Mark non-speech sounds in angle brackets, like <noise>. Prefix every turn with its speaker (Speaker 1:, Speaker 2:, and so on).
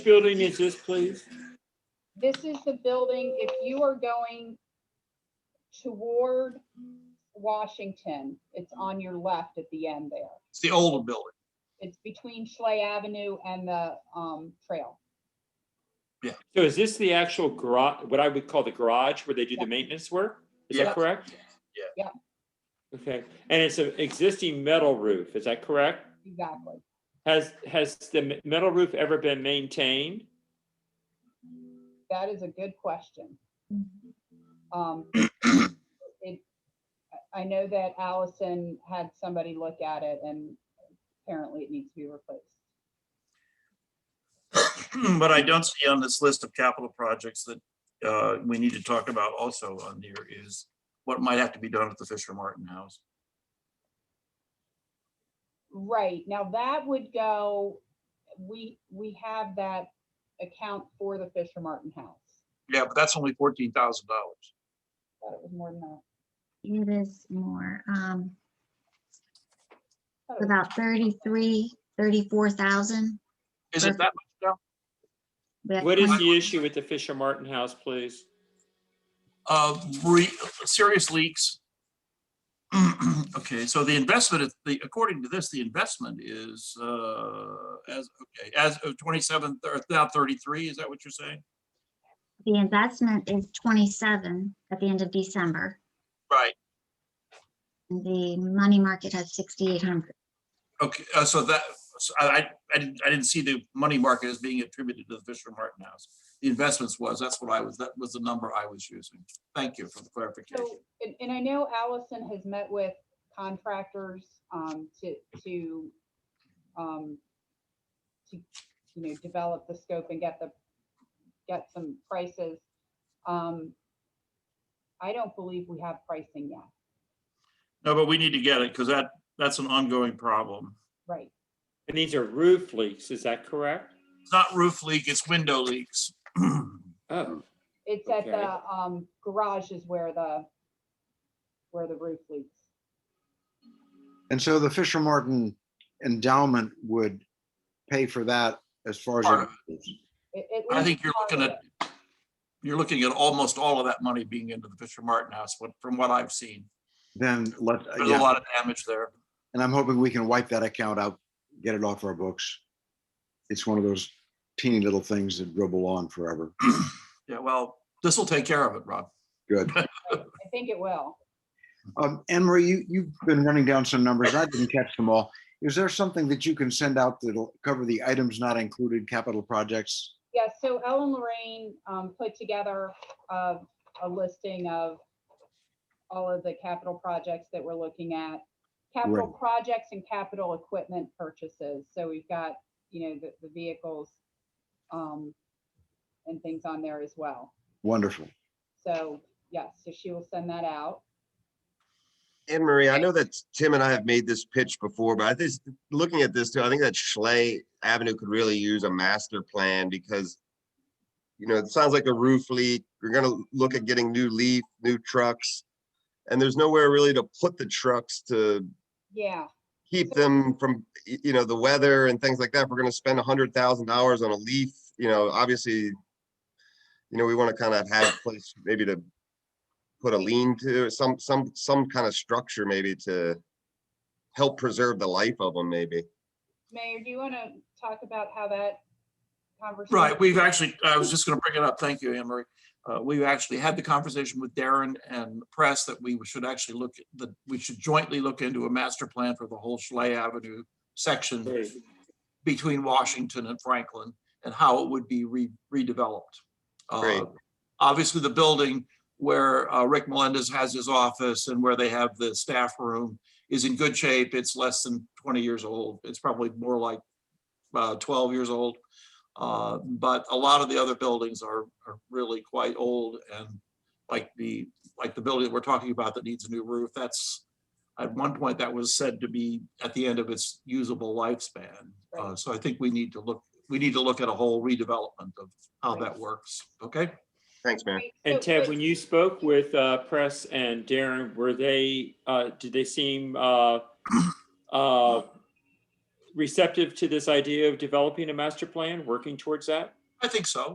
Speaker 1: building is this, please?
Speaker 2: This is the building, if you are going toward Washington, it's on your left at the end there.
Speaker 3: It's the old building.
Speaker 2: It's between Schley Avenue and the, um, trail.
Speaker 1: So is this the actual garage, what I would call the garage where they do the maintenance work? Is
Speaker 3: Yeah.
Speaker 1: that correct?
Speaker 3: Yeah.
Speaker 2: Yeah.
Speaker 1: Okay, and it's an existing metal roof, is that correct?
Speaker 2: Exactly.
Speaker 1: Has, has the m- metal roof ever been maintained?
Speaker 2: That is a good question. Um, it, I- I know that Allison had somebody look at it and apparently it needs to be replaced.
Speaker 3: <clears throat> But I don't see on this list of capital projects that uh, we need to talk about also on here is what might have to be done at the Fisher Martin House.
Speaker 2: Right, now that would go, we, we have that account for the Fisher Martin House.
Speaker 3: Yeah, but that's only fourteen thousand dollars.
Speaker 2: Thought it was more than that.
Speaker 4: It is more, um,
Speaker 2: Thought it was-
Speaker 4: about thirty-three, thirty-four thousand.
Speaker 3: Is it that much? down?
Speaker 1: What is the issue with the Fisher Martin house, please?
Speaker 3: Uh, re- serious leaks. <clears throat> Okay, so the investment, is- the, according to this, the investment is uh, as, okay, as of twenty-seven, or now thirty-three, is that what you're saying?
Speaker 4: The investment is twenty-seven at the end of December.
Speaker 3: Right.
Speaker 4: and The money market has sixty-eight hundred.
Speaker 3: Okay, uh, so that, so I, I- I didn't, I didn't see the money market as being attributed to the Fisher Martin House. The investments was, that's what I was, that was the number I was using. Thank you for the clarification.
Speaker 2: So, and, and I know Allison has met with contractors, um, to, to, um, to, you know, develop the scope and get the, get some prices. Um, I don't believe we have pricing yet,
Speaker 3: No, but we need to get it because that, that's an ongoing problem.
Speaker 2: right?
Speaker 1: And these are roof leaks, is that correct?
Speaker 3: It's not roof leak, it's window leaks. <clears throat>
Speaker 1: Oh,
Speaker 2: It's at
Speaker 1: Okay.
Speaker 2: the, um, garage is where the, where the roof leaks.
Speaker 5: And so the Fisher Martin endowment would pay for that as far
Speaker 3: Part
Speaker 5: as.
Speaker 3: of
Speaker 5: it-
Speaker 2: It- at
Speaker 3: I
Speaker 2: least
Speaker 3: think you're
Speaker 2: part
Speaker 3: looking
Speaker 2: of
Speaker 3: at,
Speaker 2: it.
Speaker 3: you're looking at almost all of that money being into the Fisher Martin House, what- from what I've seen.
Speaker 5: Then let,
Speaker 3: There's a
Speaker 5: yeah,
Speaker 3: lot of damage there.
Speaker 5: and I'm hoping we can wipe that account out, get it off our books. It's one of those teeny little things that dribble on forever.
Speaker 3: Yeah, well, this will take care of it, Rob.
Speaker 5: Good.
Speaker 2: I think it will.
Speaker 5: Um, Anne Marie, you, you've been running down some numbers. I didn't catch them all. Is there something that you can send out that'll cover the items not included capital projects?
Speaker 2: Yeah, so Ellen Lorraine um, put together uh, a listing of all of the capital projects that we're looking at. Capital
Speaker 5: Right.
Speaker 2: projects and capital equipment purchases. So we've got, you know, the, the vehicles um, and things on there as well.
Speaker 5: Wonderful.
Speaker 2: So, yes, so she will send that out.
Speaker 6: Anne Marie, I know that Tim and I have made this pitch before, but I think, looking at this too, I think that Schley Avenue could really use a master plan because, you know, it sounds like a roof leak. We're gonna look at getting new leaf, new trucks. And there's nowhere really to put the trucks to
Speaker 2: Yeah,
Speaker 6: keep them from, y- you know, the weather and things like that. If We're gonna spend a hundred thousand dollars on a leaf, you know, obviously, you know, we want to kind of have a place maybe to put a lean to, some, some, some kind of structure maybe to help preserve the life of them maybe.
Speaker 2: Mayor, do you want to talk about how that conversation?
Speaker 3: Right, we've actually, I was just gonna bring it up, thank you, Anne Marie. Uh, we've actually had the conversation with Darren and the press that we should actually look, at- that we should jointly look into a master plan for the whole Schley Avenue section
Speaker 1: great.
Speaker 3: between Washington and Franklin and how it would be re- redeveloped. Uh,
Speaker 6: Great.
Speaker 3: Obviously, the building where uh, Rick Melendez has his office and where they have the staff room is in good shape. It's less than 20 years old. It's probably more like uh, 12 years old. Uh, But a lot of the other buildings are are really quite old and like the, like the building that we're talking about that needs a new roof, that's, at one point, that was said to be at the end of its usable lifespan. Uh, So I think we need to look, we need to look at a whole redevelopment of how that works, okay?
Speaker 6: Thanks, man.
Speaker 2: Right,
Speaker 1: And
Speaker 2: so-
Speaker 1: Ted,
Speaker 2: but-
Speaker 1: when you spoke with uh, Press and Darren, were they, uh, did they seem uh, uh, receptive to this idea of developing a master plan, working towards that?
Speaker 3: I think so.